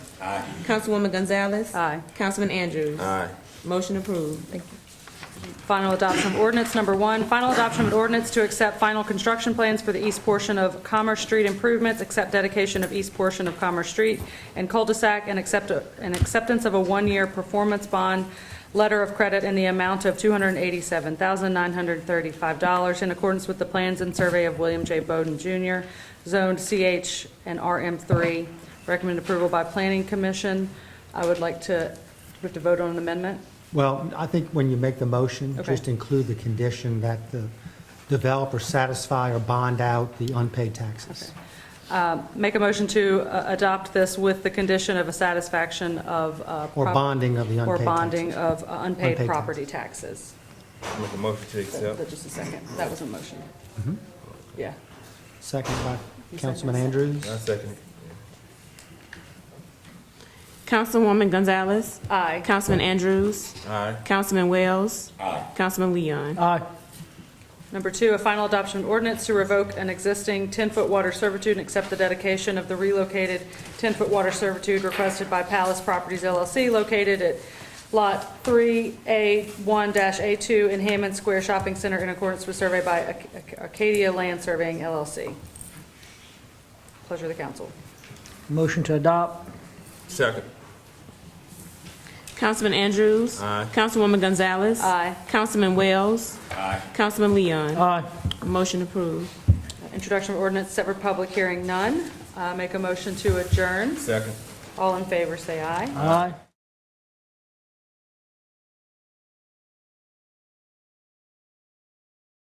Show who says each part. Speaker 1: Aye.
Speaker 2: Councilwoman Gonzalez.
Speaker 3: Aye.
Speaker 2: Councilman Andrews.
Speaker 1: Aye.
Speaker 2: Motion approved. Thank you.
Speaker 3: Final adoption of ordinance number one, final adoption of an ordinance to accept final construction plans for the east portion of Commerce Street improvements, accept dedication of east portion of Commerce Street and cul-de-sac, and accept, an acceptance of a one-year performance bond letter of credit in the amount of $287,935 in accordance with the plans and survey of William J. Bowden Jr., zoned CH and RM3. Recommend approval by Planning Commission. I would like to, we have to vote on an amendment?
Speaker 4: Well, I think when you make the motion,
Speaker 3: Okay.
Speaker 4: just include the condition that the developer satisfy or bond out the unpaid taxes.
Speaker 3: Uh, Make a motion to uh, adopt this with the condition of a satisfaction of. uh,
Speaker 4: Or
Speaker 3: prop-
Speaker 4: bonding of the
Speaker 3: Or
Speaker 4: unpaid
Speaker 3: bonding of
Speaker 4: taxes.
Speaker 3: uh, unpaid
Speaker 4: Unpaid
Speaker 3: property taxes.
Speaker 1: Make a motion to accept.
Speaker 3: Just a second, that was a motion.
Speaker 4: Mm-hmm.
Speaker 3: Yeah.
Speaker 4: Second by
Speaker 3: You said
Speaker 4: Councilman
Speaker 3: that's-
Speaker 4: Andrews.
Speaker 1: I second it.
Speaker 2: Councilwoman Gonzalez.
Speaker 3: Aye.
Speaker 2: Councilman Andrews.
Speaker 1: Aye.
Speaker 2: Councilman Wells. Aye. Councilman Leon.
Speaker 4: Aye.
Speaker 3: Number two, a final adoption of ordinance to revoke an existing 10-foot water servitude and accept the dedication of the relocated 10-foot water servitude requested by Palace Properties LLC located at Lot 3A1-A2 in Hammond Square Shopping Center in accordance with survey by Ac- Ac- Acadia Land Surveying LLC. Pleasure of the council.
Speaker 5: Motion to adopt?
Speaker 1: Second.
Speaker 2: Councilman Andrews.
Speaker 1: Aye.
Speaker 2: Councilwoman Gonzalez.
Speaker 3: Aye.
Speaker 2: Councilman Wells.
Speaker 1: Aye.
Speaker 2: Councilman Leon.
Speaker 5: Aye.
Speaker 2: Motion approved.
Speaker 3: Introduction of ordinance, set for public hearing, none. Uh, Make a motion to adjourn.
Speaker 1: Second.
Speaker 3: All in favor, say aye.
Speaker 5: Aye.